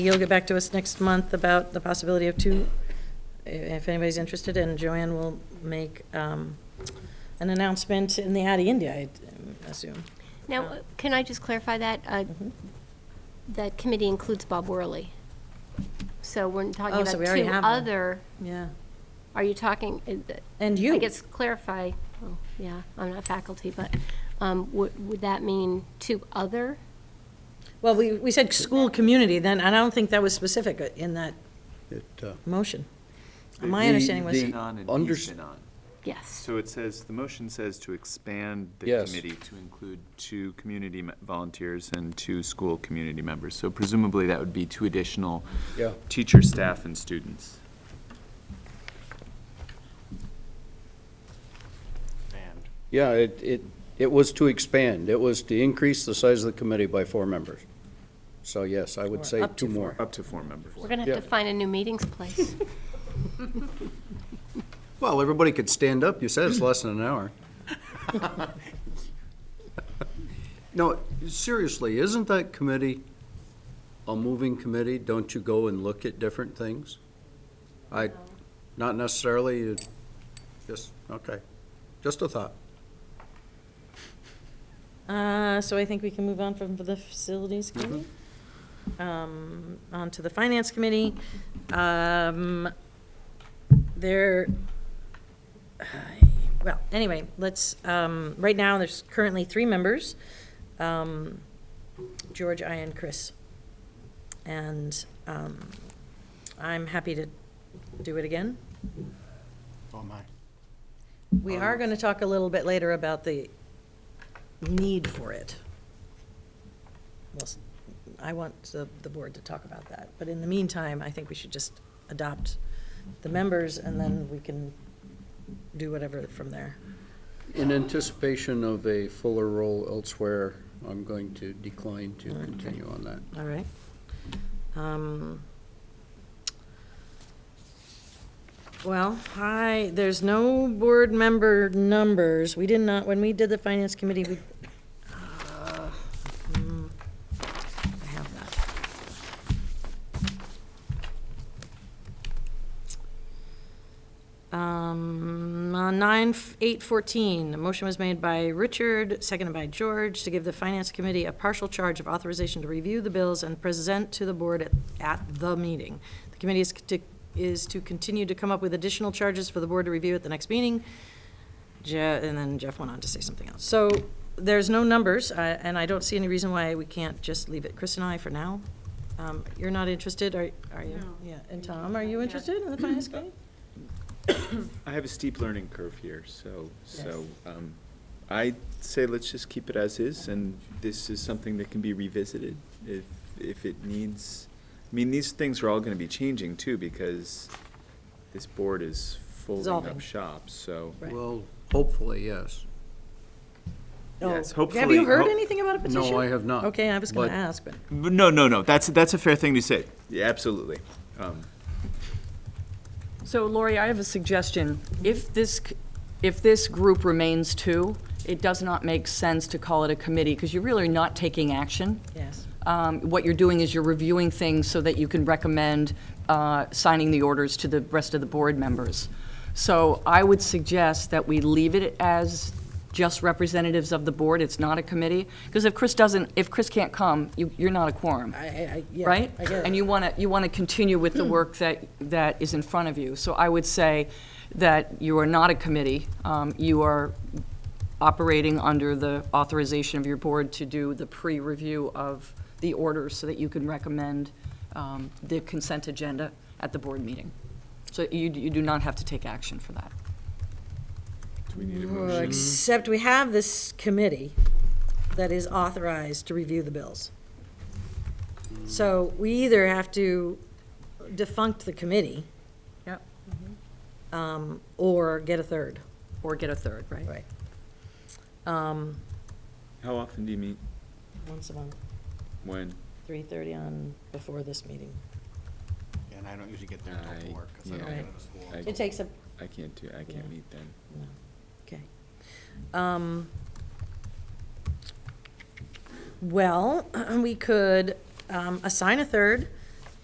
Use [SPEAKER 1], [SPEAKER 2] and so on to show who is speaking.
[SPEAKER 1] You'll get back to us next month about the possibility of two, i- if anybody's interested, and Joanne will make um, an announcement in the Addy India, I assume.
[SPEAKER 2] Now, uh, can I just clarify that? Uh,
[SPEAKER 1] Mm-hmm.
[SPEAKER 2] That committee includes Bob Worley. So we're talking
[SPEAKER 1] Oh, so
[SPEAKER 2] about
[SPEAKER 1] we already
[SPEAKER 2] two
[SPEAKER 1] have one.
[SPEAKER 2] other,
[SPEAKER 1] Yeah.
[SPEAKER 2] are you talking? uh, th-
[SPEAKER 1] And you.
[SPEAKER 2] I guess clarify, oh, yeah, I'm not faculty, but um, would would that mean two other?
[SPEAKER 1] Well, we, we said school community then, and I don't think that was specific in that
[SPEAKER 3] It, uh,
[SPEAKER 1] motion. My understanding was,
[SPEAKER 4] Been on and
[SPEAKER 3] under-
[SPEAKER 4] he's been on.
[SPEAKER 2] Yes.
[SPEAKER 4] So it says, the motion says to expand the
[SPEAKER 5] Yes.
[SPEAKER 4] committee to include two community me- volunteers and two school community members. So presumably that would be two additional
[SPEAKER 3] Yeah.
[SPEAKER 4] teacher, staff, and students.
[SPEAKER 3] Yeah, it, it, it was to expand. It was to increase the size of the committee by four members. So yes, I
[SPEAKER 1] Or
[SPEAKER 3] would say
[SPEAKER 1] up to
[SPEAKER 3] two more.
[SPEAKER 4] Up to four members.
[SPEAKER 2] We're going to have to
[SPEAKER 3] Yeah.
[SPEAKER 2] find a new meetings place.
[SPEAKER 3] Well, everybody could stand up. You said it's less than an hour. No, seriously, isn't that committee a moving committee? Don't you go and look at different things? I, not necessarily, you- just, okay, just a thought.
[SPEAKER 1] uh, so I think we can move on from the facilities committee. Um, on to the finance committee. Um, there, well, anyway, let's, um, right now, there's currently three members. Um, George, I, and Chris. And, um, I'm happy to do it again.
[SPEAKER 6] Oh, my.
[SPEAKER 1] We are going to talk a little bit later about the need for it. Well, s- I want the, the board to talk about that, but in the meantime, I think we should just adopt the members, and then we can do whatever from there.
[SPEAKER 3] In anticipation of a fuller role elsewhere, I'm going to decline to continue on that.
[SPEAKER 1] All right. Um, Well, I, there's no board member numbers. We did not, when we did the finance committee, we. uh, mm, I have that. Um, on nine, f- eight fourteen, a motion was made by Richard, seconded by George, to give the finance committee a partial charge of authorization to review the bills and present to the board at, at the meeting. The committee is to, is to continue to come up with additional charges for the board to review at the next meeting. Je, and then Jeff went on to say something else. So there's no numbers, uh, and I don't see any reason why we can't just leave it, Chris and I, for now. Um, you're not interested, are, are you? Yeah, and Tom, are you interested in the finance committee?
[SPEAKER 4] I have a steep learning curve here, so, so,
[SPEAKER 1] Yes.
[SPEAKER 4] um, I say let's just keep it as is, and this is something that can be revisited if, if it needs, I mean, these things are all gonna be changing too, because this board is folding
[SPEAKER 1] Dissolving.
[SPEAKER 4] up shop, so.
[SPEAKER 1] Right.
[SPEAKER 3] Well, hopefully, yes.
[SPEAKER 4] Yes,
[SPEAKER 1] Oh, Have
[SPEAKER 4] hopefully-
[SPEAKER 1] you heard
[SPEAKER 4] ho-
[SPEAKER 1] anything about a petition?
[SPEAKER 3] No, I have not.
[SPEAKER 1] Okay, I was gonna
[SPEAKER 3] But-
[SPEAKER 1] ask, but,
[SPEAKER 4] But No, no, no, that's, that's a fair thing to say, yeah, absolutely. Um,
[SPEAKER 7] So Lori, I have a suggestion. If this, c- if this group remains two, it does not make sense to call it a committee, because you're really not taking action.
[SPEAKER 1] yes.
[SPEAKER 7] Um, What you're doing is you're reviewing things so that you can recommend uh, signing the orders to the rest of the board members. So I would suggest that we leave it as just representatives of the board, it's not a committee, because if Chris doesn't, if Chris can't come, you- you're not a quorum
[SPEAKER 1] I, I, I- yeah.
[SPEAKER 7] right?
[SPEAKER 1] I get it.
[SPEAKER 7] And
[SPEAKER 1] Hmm.
[SPEAKER 7] you want to, you want to continue with the work that, that is in front of you. So I would say that you are not a committee. Um, You are operating under the authorization of your board to do the pre-review of the orders so that you can recommend um, the consent agenda at the board meeting. So you, you do not have to take action for that.
[SPEAKER 4] Do we need a
[SPEAKER 1] Well,
[SPEAKER 4] motion?
[SPEAKER 1] Except we have this committee that is authorized to review the bills. So we either have to defunct the committee.
[SPEAKER 7] Yep.
[SPEAKER 1] Um, or get a third.
[SPEAKER 7] Or get a third, right?
[SPEAKER 1] Right. Um,
[SPEAKER 4] How often do you meet?
[SPEAKER 1] once a month,
[SPEAKER 4] When?
[SPEAKER 1] three thirty on, before this meeting.
[SPEAKER 6] And I don't usually get there
[SPEAKER 4] I-
[SPEAKER 6] until four, because I don't
[SPEAKER 1] yeah.
[SPEAKER 6] get out of school.
[SPEAKER 4] I-
[SPEAKER 1] It takes a
[SPEAKER 4] I can't do, I
[SPEAKER 1] Yeah.
[SPEAKER 4] can't meet then.
[SPEAKER 1] Okay. Um, Well, we could um, assign a third